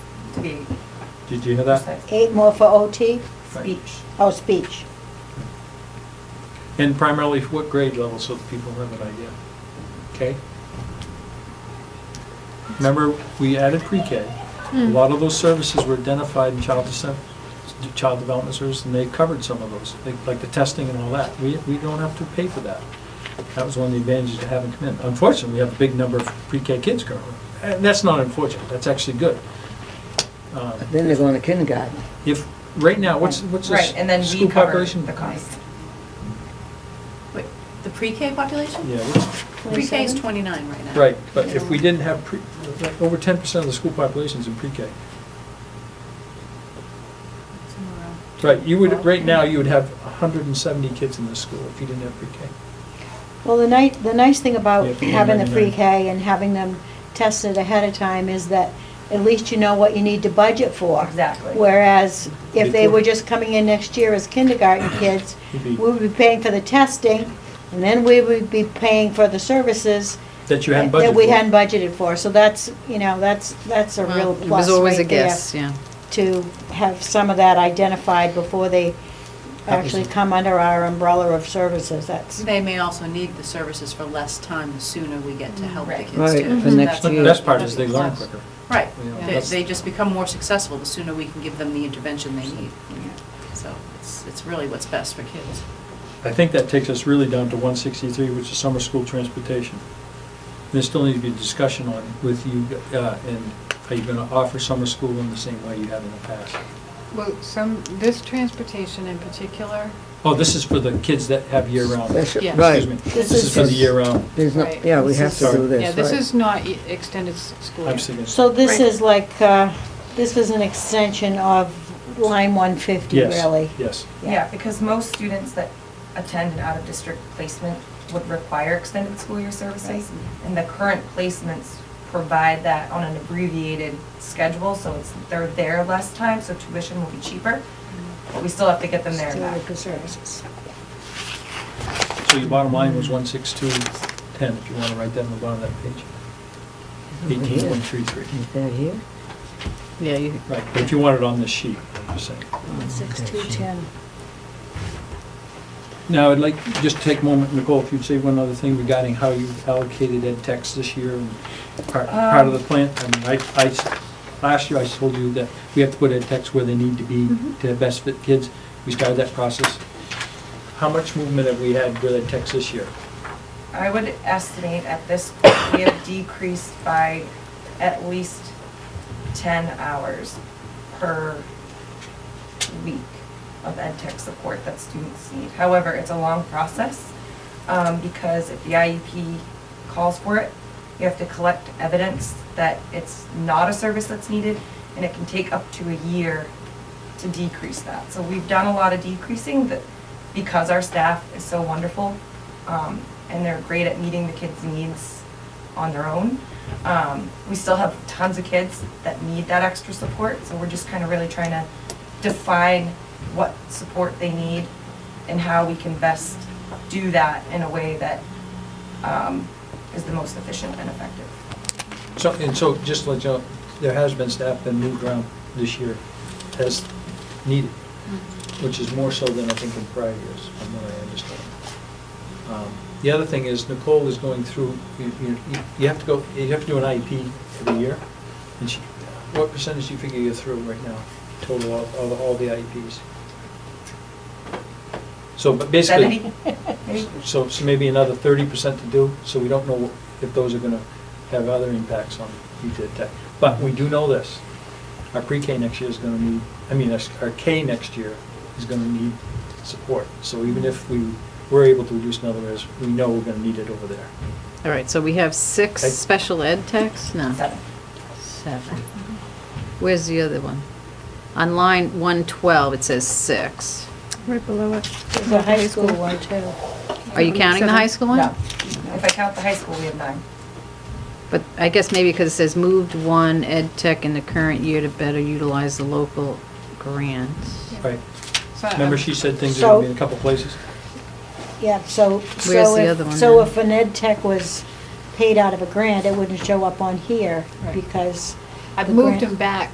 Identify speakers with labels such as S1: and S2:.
S1: to be
S2: Did you hear that?
S1: precise.
S3: Eight more for OT?
S1: Speech.
S3: Oh, speech.
S2: And primarily what grade level, so that people have an idea. Okay? Remember, we added pre-K. A
S1: Hmm.
S2: lot of those services were identified in child descent, child development services, and they covered some of those, like- like the testing and all that. We, we don't have to pay for that. That was one of the advantages to having come in. Unfortunately, we have a big number of pre-K kids currently. And that's not unfortunate, that's actually good. Um,
S4: Then they're going to kindergarten.
S2: If, right now, what's, what's the
S1: Right, and then
S2: s-
S1: we
S2: school
S1: cover
S2: population?
S1: the cost.
S5: Wait, the pre-K population?
S2: Yeah, what's,
S5: Pre-K is 29 right now.
S2: Right, but if we didn't have, pre like, over 10% of the school population's in pre-K.
S5: Somewhere around.
S2: Right, you would, right now, you would have 170 kids in this school if you didn't have pre-K.
S3: Well, the nice, the nice thing about
S2: Yeah,
S3: having the
S2: 99.
S3: pre-K and having them tested ahead of time is that at least you know what you need to budget for.
S1: Exactly.
S3: Whereas if they were
S2: Before-
S3: just coming in next year as kindergarten kids,
S2: You'd
S3: we
S2: be-
S3: would be paying for the testing, and then we would be paying for the services.
S2: That you hadn't budgeted
S3: That we
S2: for.
S3: hadn't budgeted for, so that's, you know, that's, that's a real
S6: Well,
S3: plus
S6: It was always a
S3: right there.
S6: guess, yeah.
S3: to have some of that identified before they actually come under our umbrella of services, that's,
S5: They may also need the services for less time, the sooner we get to help the
S1: Right.
S5: kids too.
S4: Right, for
S5: So
S4: next
S5: that's-
S2: But
S4: year.
S2: The best part is they learn quicker.
S5: Right,
S2: Yeah.
S5: They-
S2: That's-
S5: they just become more successful, the sooner we can give them the intervention they need. So it's, it's really what's best for kids.
S2: I think that takes us really down to 163, which is summer school transportation. There still needs to be a discussion on with you, uh, and are you going to offer summer school in the same way you have in the past?
S7: Well, some, this transportation in particular,
S2: Oh, this is for the kids that have year-round.
S4: That's-
S7: Yeah.
S2: Excuse
S4: Right.
S2: me.
S3: This
S2: This is
S3: is
S2: for the
S3: just-
S2: year-round.
S4: There's no,
S7: Right.
S4: yeah, we
S7: This
S4: have to
S2: is-
S4: do this,
S7: yeah, this
S4: right.
S7: is not e- extended s- school.
S2: I'm
S7: year.
S2: seeing this.
S3: so this
S5: Right.
S3: is like, uh, this is an extension of line 150,
S2: Yes,
S3: really.
S2: Yes.
S3: Yeah.
S1: Yeah, because most students that attend an out-of-district placement would require extended school year services, and the current placements provide that on an abbreviated schedule, so it's, they're there less time, so tuition will be cheaper, but we still have to get them there and back.
S3: Student services.
S2: So your bottom line was 16210, if you want to write that on the bottom of that page.
S4: Over here.
S2: 18.33.
S4: Is that here?
S6: Yeah, you,
S2: Right, but if you want it on this sheet, I'm just saying.
S3: 16210.
S2: Now, I'd like, just take a moment, Nicole, if you'd say one other thing regarding how you allocated ed techs this year and part part of the
S1: Um,
S2: plan. I mean, I, I s- last year I told you that we have to put ed techs where they need to be to best fit kids. We started that process. How much movement have we had with ed techs this year?
S1: I would estimate at this point, we have decreased by at least 10 hours per week of ed tech support that students need. However, it's a long process um, because if the IEP calls for it, you have to collect evidence that it's not a service that's needed, and it can take up to a year to decrease that. So we've done a lot of decreasing that, because our staff is so wonderful, um, and they're great at meeting the kids' needs on their own. Um, we still have tons of kids that need that extra support, so we're just kind of really trying to define what support they need and how we can best do that in a way that, um, is the most efficient and effective.
S2: So, and so, just to let you know, there has been staff been moved around this year as needed, which is more so than I think in prior years, from what I understand. Um, The other thing is Nicole is going through, you, you- you have to go, you have to do an E IEP every year. And she, what percentage do you figure you're through right now, total of, of all the IEPs? So, but basically.
S1: Seventy? Maybe?
S2: So, so maybe another thirty percent to do, so we don't know if those are gonna have other impacts on future tech. But we do know this, our pre-K next year is gonna need, I mean, our- our K next year is gonna need support. So even if we were able to reduce another is, we know we're gonna need it over there.
S6: all right, so we have six
S2: Okay.
S6: special ed techs? No,
S1: Seven.
S6: seven. Where's the other one? On line 112, it says six.
S8: Right below it.
S3: There's a high school one, too.
S6: Are you counting the high school one?
S1: No. If I count the high school, we have nine.
S6: But I guess maybe because it says moved one ed tech in the current year to better utilize the local grants.
S2: Right,
S7: So I'm-
S2: remember she said things are gonna be in a couple places?
S3: Yeah, so,
S6: Where's
S3: so
S6: the other
S3: if,
S6: one
S3: so
S6: then?
S3: if an ed tech was paid out of a grant, it wouldn't show up on here
S7: Right.
S3: because.
S7: I've
S3: the
S7: moved
S3: grant-
S7: them back